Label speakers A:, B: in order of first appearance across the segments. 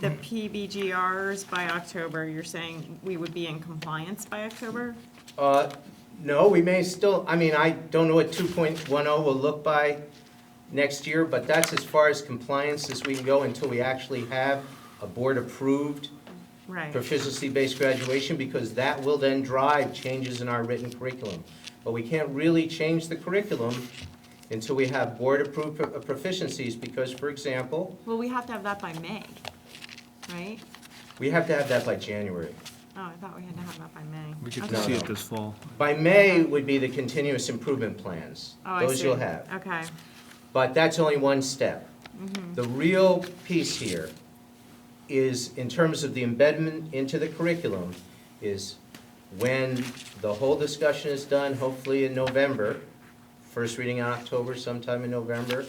A: the PBGRs by October, you're saying we would be in compliance by October?
B: Uh, No, we may still, I mean, I don't know what 2.10 will look by next year, but that's as far as compliance as we can go until we actually have a board-approved
A: Right.
B: proficiency-based graduation, because that will then drive changes in our written curriculum. But we can't really change the curriculum until we have board-approved pro- uh, proficiencies, because, for example,
A: Well, we have to have that by May, right?
B: we have to have that by January.
A: Oh, I thought we had to have that by May.
C: We get
A: Okay.
C: to see
B: No,
C: it
B: no.
C: this fall.
B: By May would be the continuous improvement plans.
A: Oh, I
B: Those you'll
A: see.
B: have.
A: Okay,
B: But that's only one step. The real piece here is, in terms of the embedment into the curriculum, is when the whole discussion is done, hopefully in November, first reading in October, sometime in November,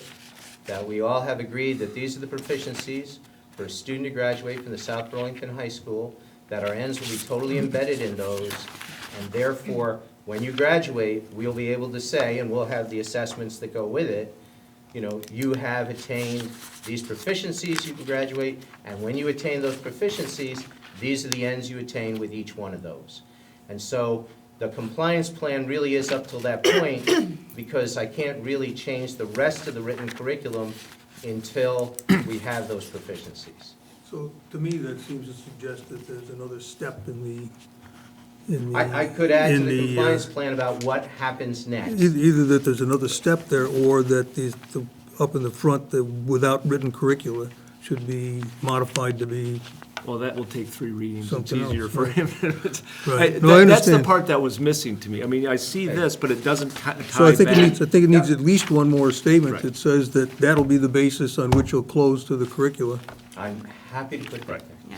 B: that we all have agreed that these are the proficiencies for a student to graduate from the South Burlington High School, that our ends will be totally embedded in those, and therefore, when you graduate, we'll be able to say, and we'll have the assessments that go with it, you know, you have attained these proficiencies, you can graduate, and when you attain those proficiencies, these are the ends you attain with each one of those. And so the compliance plan really is up till that point, because I can't really change the rest of the written curriculum until we have those proficiencies.
D: So to me, that seems to suggest that there's another step in the, in the.
B: I, I could add to
D: in
B: the
D: uh,
B: compliance plan about what happens next.
D: Either either that there's another step there, or that the, the- up in the front, the without written curricula should be modified to be,
E: Well, that will take three readings. It's
D: Something
E: easier
D: else,
E: for
D: right.
E: him.
D: Right.
E: I-
D: No,
E: that-
D: I
E: That's the
D: understand.
E: part that was missing to me. I mean, I see this, but it doesn't ti-
D: so I
E: tie
D: think it needs,
E: back.
D: I think it needs at least one more statement
E: Right.
D: that says that that'll be the basis on which you'll close to the curricula.
B: I'm happy to put that there.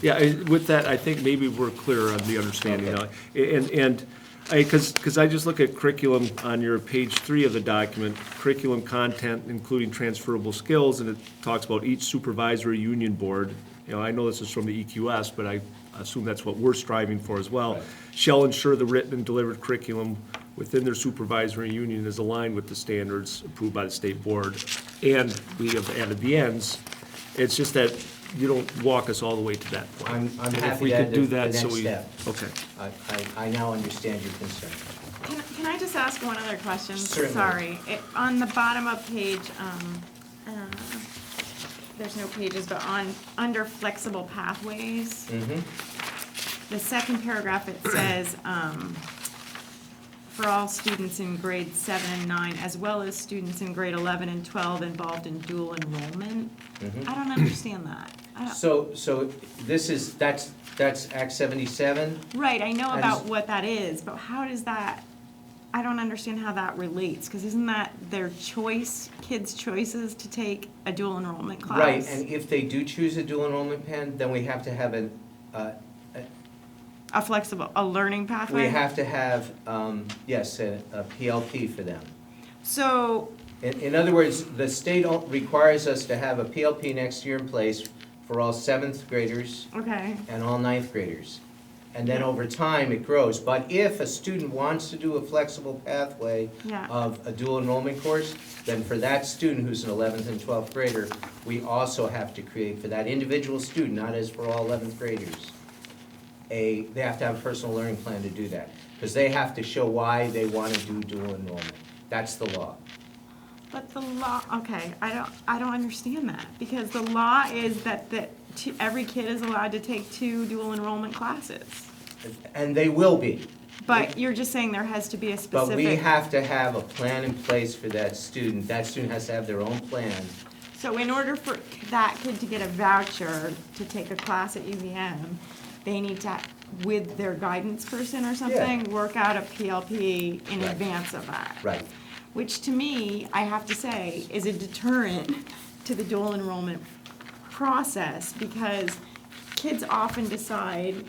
A: yeah.
E: Yeah, I- with that, I think maybe we're clear on the understanding. now. And, and, because, because I just look at curriculum on your page three of the document, curriculum content including transferable skills, and it talks about each supervisory union board. You know, I know this is from the EQS, but I assume that's what we're striving for as well. Shall ensure the written and delivered curriculum within their supervisory union is aligned with the standards approved by the state board. And we have added the ends. It's just that you don't walk us all the way to that point.
B: I'm- I'm
E: And if
B: happy
E: we
B: to
E: could
B: add
E: do
B: the- the
E: that, so
B: next
E: we-
B: step.
E: Okay.
B: I, I, I now understand your concern.
A: Can, can I just ask one other question?
B: Certainly.
A: Sorry. It- On the bottom of page, um, uh, there's no pages, but on, under flexible pathways, the second paragraph, it says, um, for all students in grade seven and nine, as well as students in grade eleven and twelve involved in dual enrollment. I don't understand that. I don't-
B: So, so this is, that's, that's Act seventy-seven?
A: Right, I know
B: I
A: about
B: just-
A: what that is, but how does that, I don't understand how that relates, because isn't that their choice, kids' choices to take a dual enrollment class?
B: Right, and if they do choose a dual enrollment plan, then we have to have an, uh,
A: A flexible, a learning
B: we
A: pathway?
B: have to have, um, yes, a a PLP for them.
A: So,
B: In, in other words, the state o- requires us to have a PLP next year in place for all seventh graders
A: okay,
B: and all ninth graders. And then over time, it grows. But if a student wants to do a flexible pathway
A: Yeah.
B: of a dual enrollment course, then for that student who's an 11th and 12th grader, we also have to create for that individual student, not as for all 11th graders, a, they have to have a personal learning plan to do that. Because they have to show why they want to do dual enrollment. That's the law.
A: but the law, okay, I don't, I don't understand that, because the law is that, that two- every kid is allowed to take two dual enrollment classes.
B: And they will be.
A: But you're just saying there has to be a specific.
B: But we have to have a plan in place for that student. That student has to have their own plan.
A: So in order for that kid to get a voucher to take a class at UVM, they need to, with their guidance person or something, work out a PLP in
B: Right.
A: advance of that.
B: Right.
A: Which to me, I have to say, is a deterrent to the dual enrollment process because kids often decide,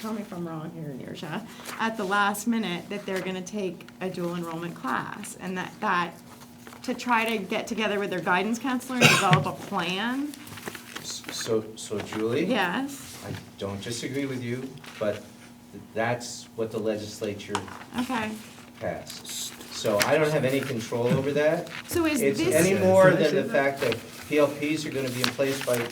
A: tell me if I'm wrong here, Neersha, at the last minute that they're gonna take a dual enrollment class and that, that, to try to get together with their guidance counselor and develop a plan,
B: So, so Julie?
A: yes,
B: I don't disagree with you, but that's what the legislature
A: okay.
B: passed. So I don't have any control over that.
A: So is
B: It's
A: this?
B: any more than the fact that PLPs are gonna be in place by